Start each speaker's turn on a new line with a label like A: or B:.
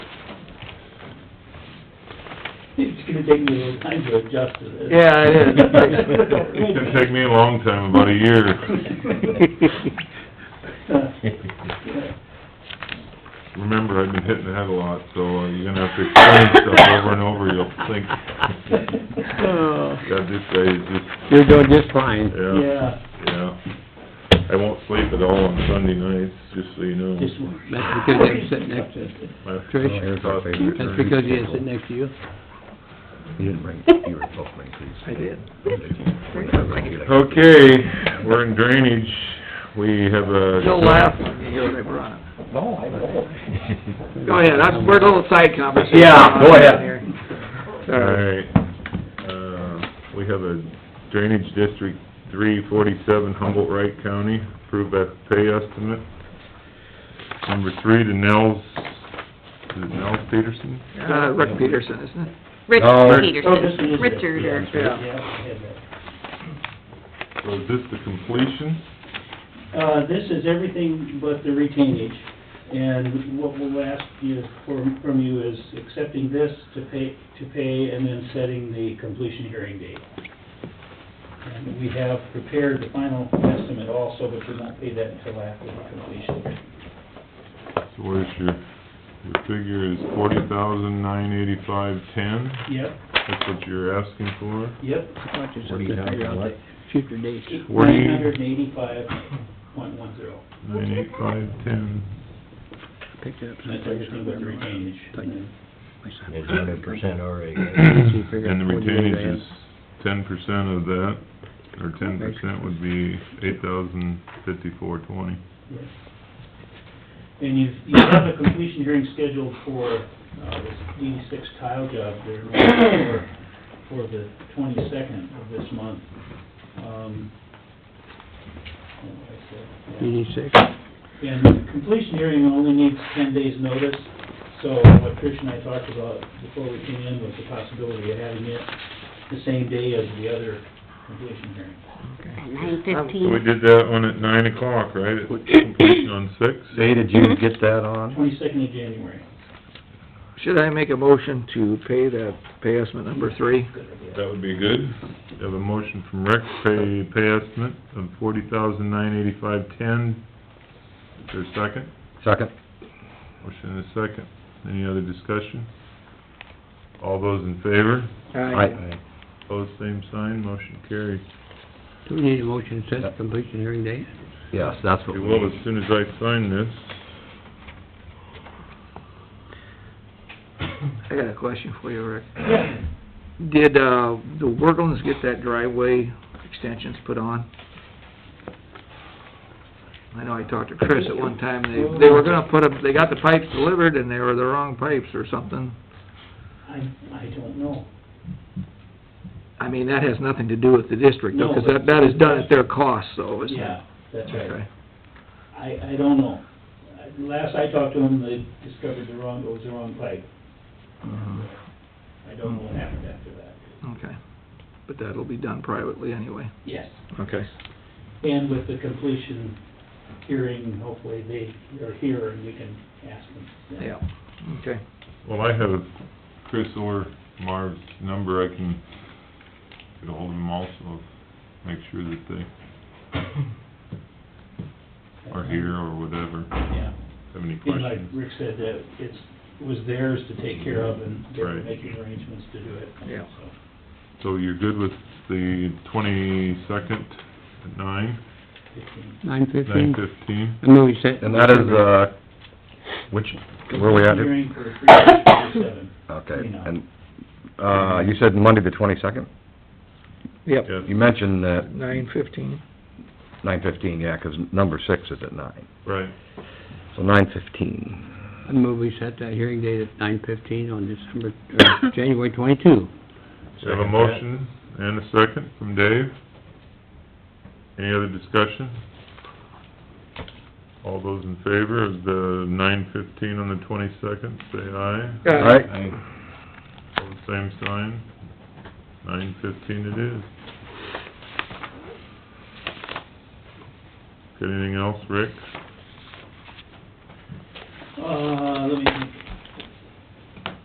A: It's gonna take me a little time to adjust to this.
B: Yeah, it
C: It's gonna take me a long time, about a year. Remember, I've been hitting the head a lot, so you're gonna have to explain stuff over and over, you'll think,
B: Oh,
C: God, this guy is just,
B: You're doing just fine.
C: yeah,
A: Yeah,
C: yeah. I won't sleep at all on Sunday nights, just so you know.
A: just one.
B: That's because I'm sitting next to
C: My-
B: Trish.
C: my
D: Here's our
C: thoughts-
D: favorite.
B: That's because he is sitting next to you.
D: You didn't bring, you were supposed to bring these.
B: I did.
C: Okay, we're in drainage, we have a...
B: You'll laugh. Go
D: No, I know.
B: ahead, that's, we're a little side conversation.
D: Yeah, go ahead.
C: Alright,
B: Sorry.
C: uh, we have a drainage district three forty-seven Humboldt Wright County, approved that pay estimate. Number three to Nels, is it Nels Peterson?
B: Uh, Rick Peterson, isn't it?
E: Rich
C: No.
A: Oh, this one
E: Peterson,
A: is it.
E: Richard or...
A: Yeah, yeah, yeah, yeah.
C: So is this the completion?
A: Uh, this is everything but the retainage, and what we'll ask you, from, from you is accepting this to pay, to pay, and then setting the completion hearing date. And we have prepared the final estimate also, but we won't pay that until after the completion.
C: So where's your, your figure is forty thousand nine eighty-five ten,
A: Yep,
C: that's what you're asking for?
A: yep.
B: Future dates.
C: Where do you-
A: Nine hundred and eighty-five point one zero.
C: Nine eight five ten,
B: Picked it up
A: That's everything but the retainage.
D: It's hundred percent already.
C: and the retainage is ten percent of that, or ten percent would be eight thousand fifty-four twenty.
A: Yes. And you, you have a completion hearing scheduled for, uh, this D six tile job there for, for the twenty-second of this month. Um, what did I say? Yeah.
B: DD six.
A: And the completion hearing only needs ten days' notice, so what Trish and I talked about before we came in was the possibility of having it the same day as the other completion hearing.
E: uh, Nine
C: So we
E: fifteen,
C: did that one at nine o'clock, right? At Completion on six?
D: Say, did you get that on?
A: Twenty-second of January.
B: Should I make a motion to pay the pay estimate number three?
C: That would be good. We Have a motion from Rick, pay, pay estimate of forty thousand nine eighty-five ten. Is there a second?
D: Second.
C: Motion and a second. Any other discussion? All those in favor?
D: Aye.
C: Pose same sign, motion carries.
B: Do we need a motion to set the completion hearing date?
D: Yes, that's what
C: We
D: we
C: will as
D: need.
C: soon as I sign this.
B: I got a question for you, Rick.
A: Yeah.
B: Did, uh, the Worklands get that driveway extensions put on? I know I talked to Chris at one time, they, they were gonna put up, they got the pipes delivered and they were the wrong pipes or something.
A: I, I don't know.
B: I mean, that has nothing to do with the district, though, 'cause that, that is done at their cost, though, isn't it?
A: Yeah, that's right.
B: Okay.
A: I, I don't know. I- Last I talked to them, they discovered the wrong, it was the wrong pipe. Mm-hmm.
B: Mhm.
A: I don't know what happened after that.
B: Okay, but that'll be done privately anyway.
A: Yes.
B: Okay.
A: And with the completion hearing, hopefully they are here and we can ask them.
B: Yeah, okay.
C: Well, I have Chris or Marv's number, I can get ahold of them also, make sure that they are here or whatever,
A: Yeah.
C: have any
A: And like
C: questions.
A: Rick said, that it's, it was theirs to take care of and they're
C: Right.
A: making arrangements to do it.
B: Yeah.
A: So,
C: So you're good with the twenty-second at nine,
A: fifteen.
F: Nine
C: nine
F: fifteen,
C: fifteen?
F: I move we set.
D: And that is, uh, which, where we at?
A: Completion Hearing for three hundred forty-seven.
D: Okay, and, uh, you said Monday the twenty-second?
B: Yep,
C: Yes,
D: You mentioned that
B: nine fifteen.
D: nine fifteen, yeah, 'cause number six is at nine,
C: right.
D: so nine fifteen.
F: I move we set that hearing date at nine fifteen on December, or January twenty-two.
C: We have a
D: Second that.
C: motion and a second from Dave. Any other discussion? All those in favor of the nine fifteen on the twenty-second, say aye.
B: Aye.
D: Right?
C: All the same sign, nine fifteen it is. Got anything else, Rick?
A: Uh, let me